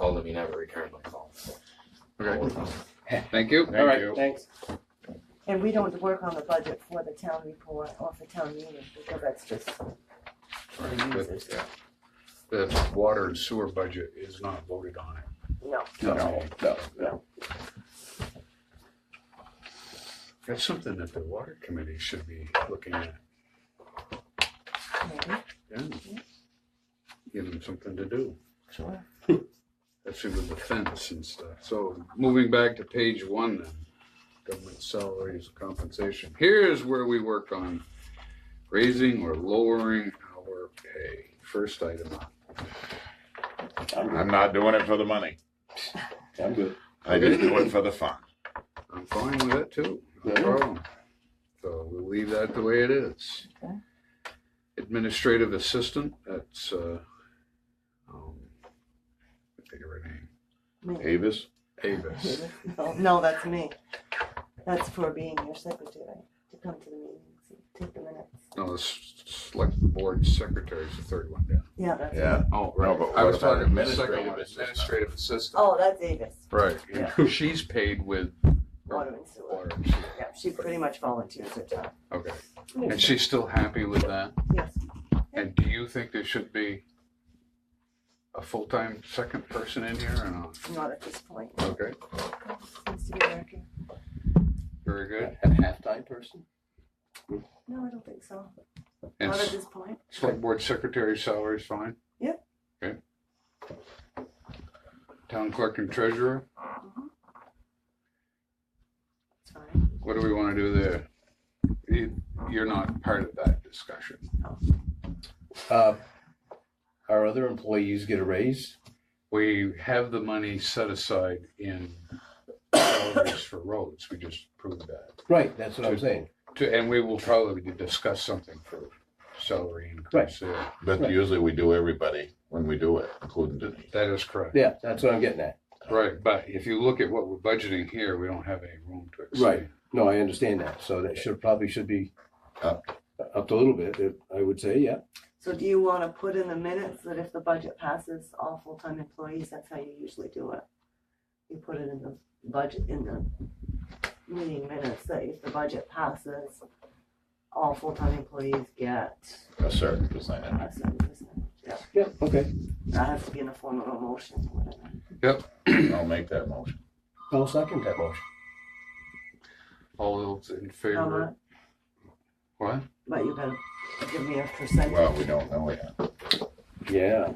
let me never return my call. Okay, Thank you. Thank All right, you. thanks. And we don't work on the budget for the town report or for town meeting, because that's just for the users. The the water and sewer budget is not voted on it. No, No, no, no. That's something that the water committee should be looking at. maybe, Yeah. Give them something to do. sure. That's with the fence and stuff. So moving back to page one then, government salaries and compensation. Here's where we worked on raising or lowering our pay. First item up. I'm, I'm not doing it for the money. I'm good. I just do it for the fun. I'm fine with it too, no Yeah. problem. So we'll leave that the way it is. Okay. Administrative assistant, that's, uh, um, I think of her name, Me. Avis, Avis. No, No, that's me. That's for being your secretary, to come to the meetings, and take the minutes. No, the s- select board secretary is the third one down. Yeah, that's me. yeah. Oh, right. but I what was about talking about the second administrative one, assistant? administrative assistant. Oh, that's Avis, Right, and she's paid with. water and sewer. Water and sewer. Yeah, she pretty much volunteers her time. Okay, and she's still happy with that? Yes, And do you think there should be a full-time second person in here or not? not at this point. Okay. Seems to be working. Very good. A half-time person? No, I don't think so. And Not at s- this point. select board secretary salary is fine? Yep. Okay. Town clerk and treasurer, It's fine. what do we want to do there? You, you're not part of that discussion. Uh, our other employees get a raise. We have the money set aside in salaries for roads. We just proved that. Right, that's what I'm saying. To- And we will probably discuss something for salary increase there. But Right. usually we do everybody when we do it, including Denise. That is correct. Yeah, that's what I'm getting at. Right, but if you look at what we're budgeting here, we don't have any room to exceed. Right. No, I understand that. So that should probably should be Up. up a little bit. If, I would say, yeah. So do you wanna put in the minutes that if the budget passes all full-time employees, that's how you usually do it? You put it in the budget, in the meeting minutes, that if the budget passes, all full-time employees get A certain percentage. a certain percentage. Yeah, Yeah. Okay. that has to be in the form of a motion or whatever. I'll make that motion. I'll second that motion. All those in How favor? much? What? But you better give me a percentage. Well, we don't know yet. Yeah.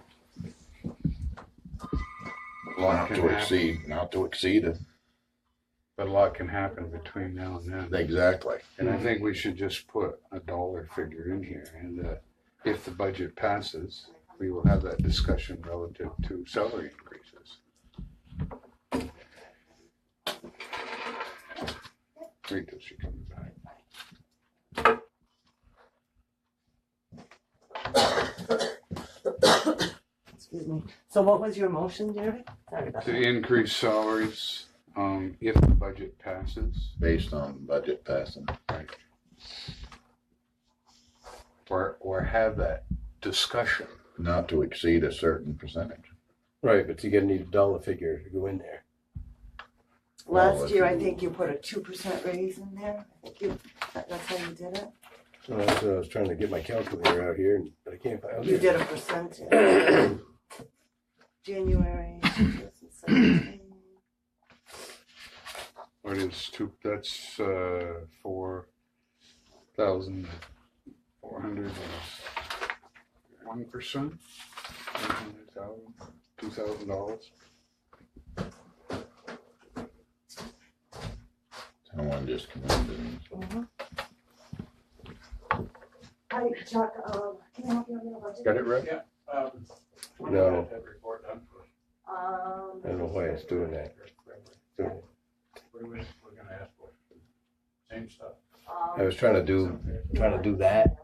A lot Not can to happen, exceed, not to exceed it. but a lot can happen between now and then. Exactly. And I think we should just put a dollar figure in here and, uh, if the budget passes, we will have that discussion relative to salary increases. Wait till she comes back. Excuse me. So what was your motion, Jerry? Sorry about To that. increase salaries, um, if the budget passes Based on budget passing. or, or have that discussion. Not to exceed a certain percentage. Right, but you're gonna need a dollar figure to go in there. Last year, I think you put a two percent raise in there. I think you, that- that's how you did it. So that's what I was trying to get my calculator out here, and but I can't find You it. did a percentage. January 2017. What is two, that's, uh, four thousand four hundred and one percent? Two thousand dollars? Someone just come in, Denise. Hi, Chuck, um, can I help you on your budget? Got it right? No, I don't know Um, why it's doing that. I was trying to do, trying to do that.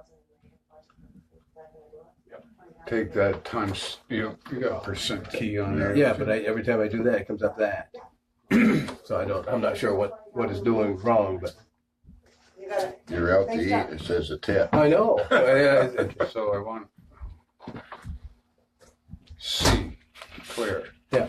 Take that times, you, you got percent key on there. Yeah, but I, every time I do that, it comes up that. So I don't, I'm not sure what, what is doing wrong, but. You got it. You're out to Thanks, eat, Chuck. it says a tip. I know. I- I- So I want. C, clear. Yeah.